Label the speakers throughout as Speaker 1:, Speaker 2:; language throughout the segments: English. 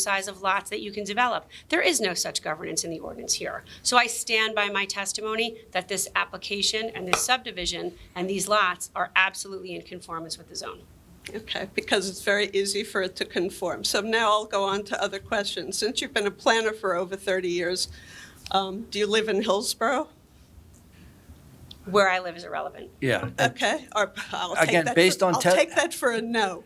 Speaker 1: size of lots that you can develop. There is no such governance in the ordinance here. So I stand by my testimony that this application and this subdivision and these lots are absolutely in conformance with the zone.
Speaker 2: Okay, because it's very easy for it to conform. So now I'll go on to other questions. Since you've been a planner for over 30 years, um, do you live in
Speaker 3: Uh,
Speaker 2: Hillsborough?
Speaker 1: Where I live is irrelevant.
Speaker 3: Yeah. and
Speaker 2: Okay, or I'll take
Speaker 3: Again,
Speaker 2: that
Speaker 3: based
Speaker 2: for-
Speaker 3: on
Speaker 2: I'll
Speaker 3: te-
Speaker 2: take that for a no.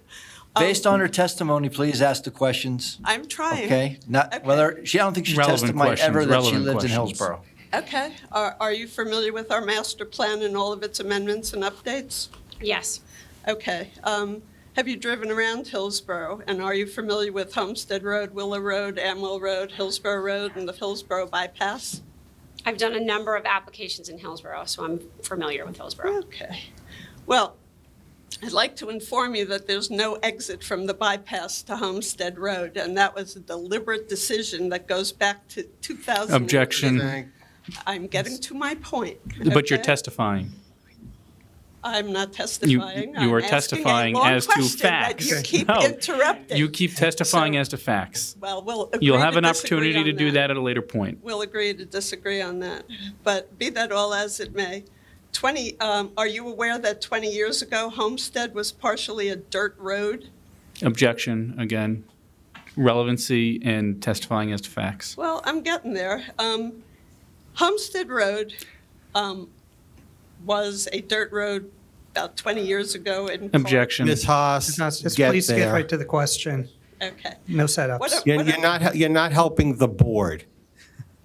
Speaker 2: Uh,
Speaker 3: Based
Speaker 2: um,
Speaker 3: on her testimony, please ask the questions,
Speaker 2: I'm trying.
Speaker 3: okay? Not
Speaker 2: Okay.
Speaker 3: whether, she, I don't think she
Speaker 4: Relevant
Speaker 3: testified ever
Speaker 4: questions,
Speaker 3: that she
Speaker 4: relevant
Speaker 3: lives in
Speaker 4: questions.
Speaker 3: Hillsborough.
Speaker 2: Okay, are are you familiar with our master plan and all of its amendments and updates?
Speaker 1: Yes,
Speaker 2: Okay, um, have you driven around Hillsborough? And are you familiar with Homestead Road, Willow Road, Amwell Road, Hillsborough Road, and the Hillsborough bypass?
Speaker 1: I've done a number of applications in Hillsborough, so I'm familiar with Hillsborough.
Speaker 2: Okay. Well, I'd like to inform you that there's no exit from the bypass to Homestead Road, and that was a deliberate decision that goes back to 2000.
Speaker 4: Objection,
Speaker 2: I'm getting to my point.
Speaker 4: but you're
Speaker 2: okay?
Speaker 4: testifying.
Speaker 2: I'm not testifying.
Speaker 4: you are
Speaker 2: I'm asking a
Speaker 4: testifying
Speaker 2: long
Speaker 4: as to
Speaker 2: question that You
Speaker 4: facts.
Speaker 2: keep
Speaker 4: No.
Speaker 2: interrupting.
Speaker 4: You keep testifying
Speaker 2: So-
Speaker 4: as to facts.
Speaker 2: Well, we'll agree
Speaker 4: You'll have
Speaker 2: to
Speaker 4: an
Speaker 2: disagree
Speaker 4: opportunity to
Speaker 2: on
Speaker 4: do that at a later point.
Speaker 2: We'll agree to disagree on that, but be that all as it may. 20, um, are you aware that 20 years ago Homestead was partially a dirt road?
Speaker 4: Objection, again, relevancy and testifying as to facts.
Speaker 2: Well, I'm getting there. Um, Homestead Road um, was a dirt road about 20 years ago. in Col-
Speaker 4: Objection.
Speaker 5: Ms. Haas,
Speaker 6: Just just
Speaker 5: get
Speaker 6: please get
Speaker 5: there.
Speaker 6: right to the question.
Speaker 2: Okay.
Speaker 6: No setups.
Speaker 2: What-
Speaker 5: You're, you're not, you're not helping the board.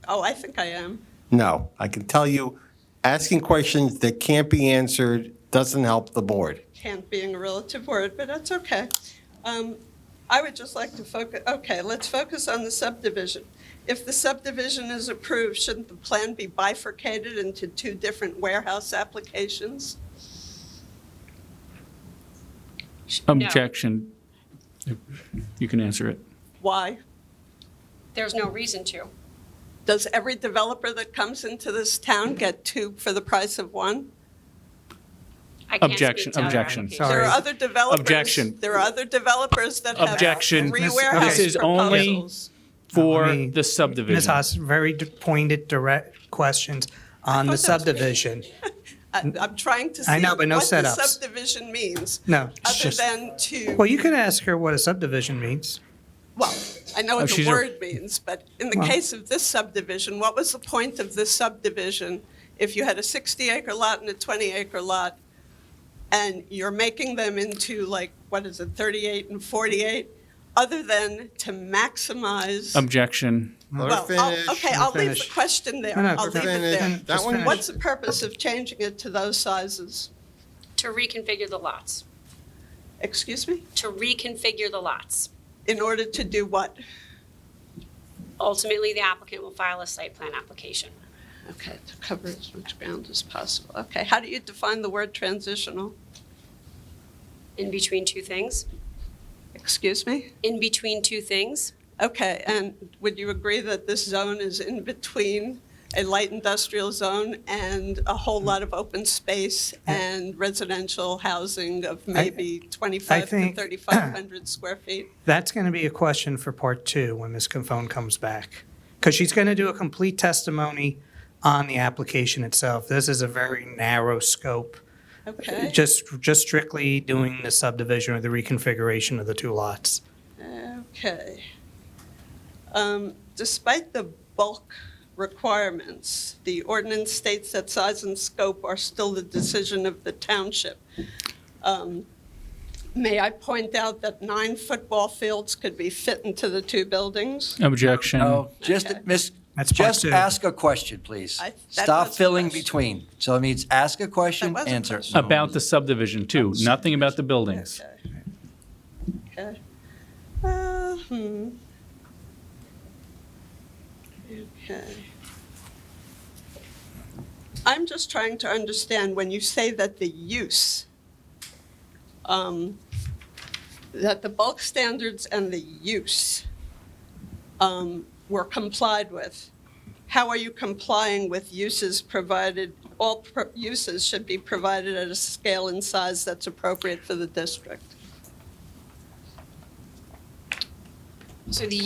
Speaker 2: Oh, I think I am.
Speaker 5: No, I can tell you, asking questions that can't be answered doesn't help the board.
Speaker 2: Can't being a relative word, but that's okay. Um, I would just like to focus, okay, let's focus on the subdivision. If the subdivision is approved, shouldn't the plan be bifurcated into two different warehouse applications?
Speaker 1: No,
Speaker 4: Objection. You can answer it.
Speaker 2: Why?
Speaker 1: There's no reason to.
Speaker 2: Does every developer that comes into this town get two for the price of one?
Speaker 1: I can't speak
Speaker 4: Objection,
Speaker 1: to other
Speaker 4: objection.
Speaker 1: applications.
Speaker 6: Sorry.
Speaker 2: There are other developers.
Speaker 4: Objection.
Speaker 2: There are other developers that have
Speaker 4: Objection.
Speaker 2: three
Speaker 4: This-
Speaker 2: warehouse
Speaker 6: this is
Speaker 4: only-
Speaker 2: proposals.
Speaker 4: For
Speaker 6: Let me-
Speaker 4: the
Speaker 6: Ms.
Speaker 4: subdivision.
Speaker 6: Haas, very d- pointed, direct questions on the
Speaker 2: thought that was me.
Speaker 6: subdivision.
Speaker 2: I- I'm trying to see
Speaker 6: I know, but no
Speaker 2: what the
Speaker 6: setups.
Speaker 2: subdivision means,
Speaker 6: No. it's
Speaker 2: other
Speaker 6: just-
Speaker 2: than to,
Speaker 6: Well, you can ask her what a subdivision means.
Speaker 2: well, I know
Speaker 4: Oh,
Speaker 2: what the
Speaker 4: she's a-
Speaker 2: word means, but in the
Speaker 6: Well-
Speaker 2: case of this subdivision, what was the point of this subdivision if you had a 60-acre lot and a 20-acre lot, and you're making them into like, what is it, 38 and 48, other than to maximize?
Speaker 4: Objection.
Speaker 5: Let her
Speaker 2: Well,
Speaker 5: finish.
Speaker 2: I'll- okay, I'll leave the
Speaker 6: Finish.
Speaker 2: question there.
Speaker 6: No, no,
Speaker 2: I'll leave it
Speaker 6: finish.
Speaker 2: there.
Speaker 5: Finish. That
Speaker 6: Just
Speaker 5: one-
Speaker 6: finish.
Speaker 2: What's the purpose of changing it to those sizes?
Speaker 1: To reconfigure the lots,
Speaker 2: Excuse me?
Speaker 1: to reconfigure the lots.
Speaker 2: In order to do what?
Speaker 1: Ultimately, the applicant will file a site plan application.
Speaker 2: Okay, to cover as much ground as possible. Okay, how do you define the word transitional?
Speaker 1: In between two things,
Speaker 2: Excuse me?
Speaker 1: in between two things,
Speaker 2: Okay, and would you agree that this zone is in between a light industrial zone and a whole lot of open space and residential housing of maybe 25 to
Speaker 6: think-
Speaker 2: 3,500 square feet?
Speaker 6: That's going to be a question for part two when Ms. Confone comes back. Because she's going to do a complete testimony on the application itself. This is a very narrow scope. Uh,
Speaker 2: Okay.
Speaker 6: Just, just strictly doing the subdivision or the reconfiguration of the two lots.
Speaker 2: Okay. Um, Despite the bulk requirements, the ordinance states that size and scope are still the decision of the township. Um, May I point out that nine football fields could be fit into the two buildings?
Speaker 4: Objection.
Speaker 6: Oh.
Speaker 3: No, just,
Speaker 2: Okay.
Speaker 3: Miss,
Speaker 6: That's part
Speaker 3: just
Speaker 6: two.
Speaker 3: ask a question, please.
Speaker 2: I- that
Speaker 3: Stop
Speaker 2: was a
Speaker 3: filling
Speaker 2: question.
Speaker 3: between. So it means ask a question,
Speaker 2: That was a
Speaker 3: answer.
Speaker 2: question.
Speaker 4: About the subdivision too, nothing about the buildings.
Speaker 2: Okay. Okay. Uh, hmm. Okay. I'm just trying to understand, when you say that the use, um, that the bulk standards and the use um, were complied with, how are you complying with uses provided, all pro- uses should be provided at a scale and size that's appropriate for the district?
Speaker 1: so the